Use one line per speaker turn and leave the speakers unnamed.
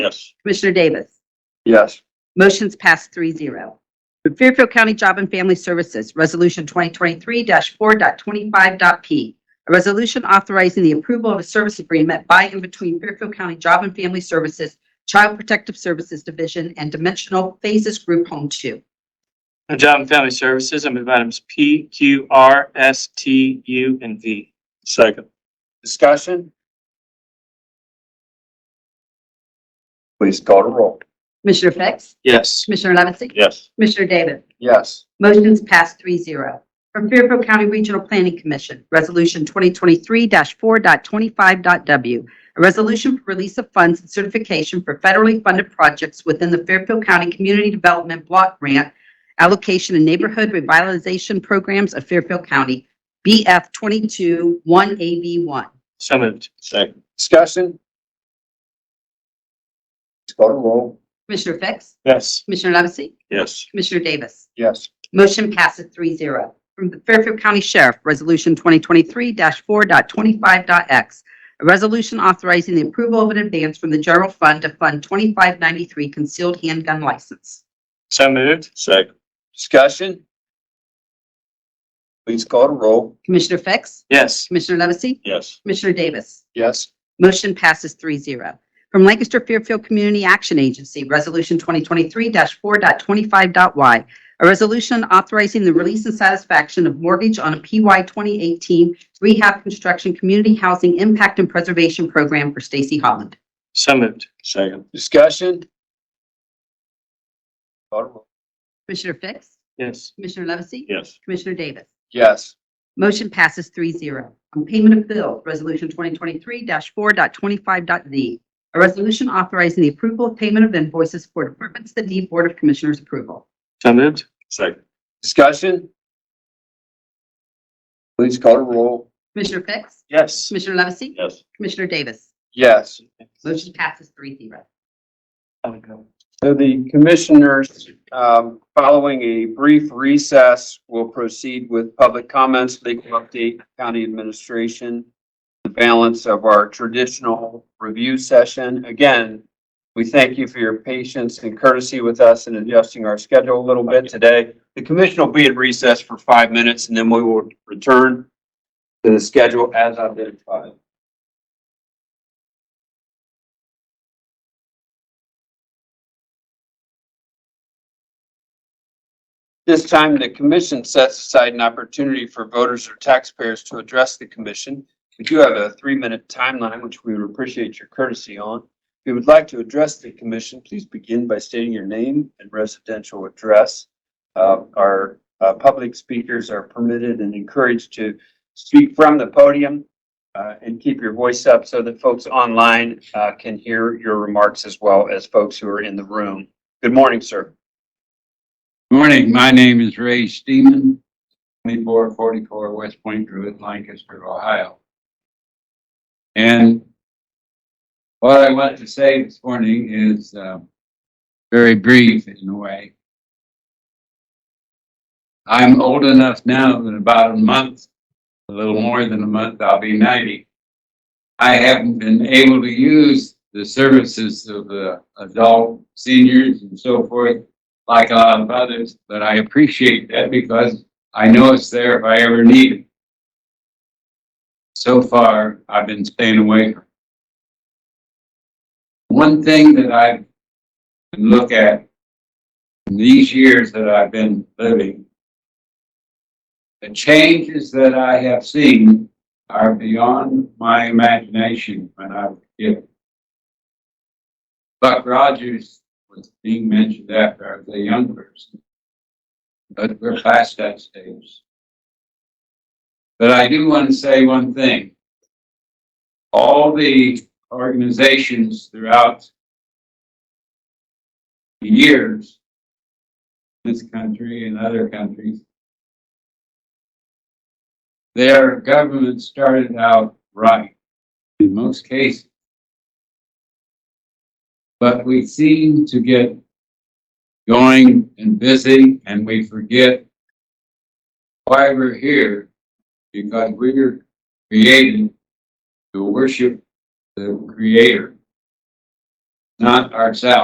Yes.
Commissioner Davis?
Yes.
Motion's passed 3-0. From Fairfield County Job and Family Services, Resolution 2023-4.25.p. A resolution authorizing the approval of a service agreement by and between Fairfield County Job and Family Services, Child Protective Services Division, and Dimensional Phases Group Home 2.
On Job and Family Services, I move items P, Q, R, S, T, U, and V.
Second.
Discussion? Please call to roll.
Commissioner Fix?
Yes.
Commissioner Levesey?
Yes.
Commissioner Davis?
Yes.
Motion's passed 3-0 From Fairfield County Regional Planning Commission, Resolution 2023-4.25.w, a resolution for release of funds and certification for federally funded projects within the Fairfield County Community Development Block Grant Allocation and Neighborhood Revitalization Programs of Fairfield County, BF 22-1AB1.
So moved.
Second.
Discussion? Please call to roll.
Commissioner Fix?
Yes.
Commissioner Levesey?
Yes.
Commissioner Davis?
Yes.
Motion passes 3-0 From the Fairfield County Sheriff, Resolution 2023-4.25.x. A resolution authorizing the approval of an advance from the general fund to fund 2593 concealed handgun license.
So moved.
Second.
Discussion? Please call to roll.
Commissioner Fix?
Yes.
Commissioner Levesey?
Yes.
Commissioner Davis?
Yes.
Motion passes 3-0 From Lancaster Fairfield Community Action Agency, Resolution 2023-4.25.y, a resolution authorizing the release and satisfaction of mortgage on a PY 2018 rehab construction community housing impact and preservation program for Stacy Holland.
So moved.
Second.
Discussion? Call to roll.
Commissioner Fix?
Yes.
Commissioner Levesey?
Yes.
Commissioner Davis?
Yes.
Motion passes 3-0 On payment of bills, Resolution 2023-4.25.z. A resolution authorizing the approval of payment of invoices for departments that need Board of Commissioners approval.
So moved.
Second.
Discussion? Please call to roll.
Commissioner Fix?
Yes.
Commissioner Levesey?
Yes.
Commissioner Davis?
Yes.
Motion passes 3-0.
So the commissioners, um, following a brief recess, will proceed with public comments, legal update, county administration, the balance of our traditional review session. Again, we thank you for your patience and courtesy with us in adjusting our schedule a little bit today. The commission will be at recess for five minutes, and then we will return to the schedule as identified. This time, the commission sets aside an opportunity for voters or taxpayers to address the commission. We do have a three-minute timeline, which we would appreciate your courtesy on. If you would like to address the commission, please begin by stating your name and residential address. Uh, Our uh, public speakers are permitted and encouraged to speak from the podium uh, and keep your voice up so that folks online uh, can hear your remarks as well as folks who are in the room. Good morning, sir.
Morning, my name is Ray Steeman, twenty-four forty-four West Point Druid, Lancaster, Ohio. And what I want to say this morning is, uh, very brief in a way. I'm old enough now that in about a month, a little more than a month, I'll be ninety. I haven't been able to use the services of the adult seniors and so forth like a lot of others, but I appreciate that because I know it's there if I ever need it. So far, I've been staying away. from it. One thing that I can look at in these years that I've been living, the changes that I have seen are beyond my imagination when I was a kid. Buck Rogers was being mentioned after I was a young person. But we're past that stage. But I do want to say one thing. All the organizations throughout the years, this country and other countries, their government started out right in most cases but we seem to get going and busy and we forget why we're here because we were created to worship the creator not ourselves.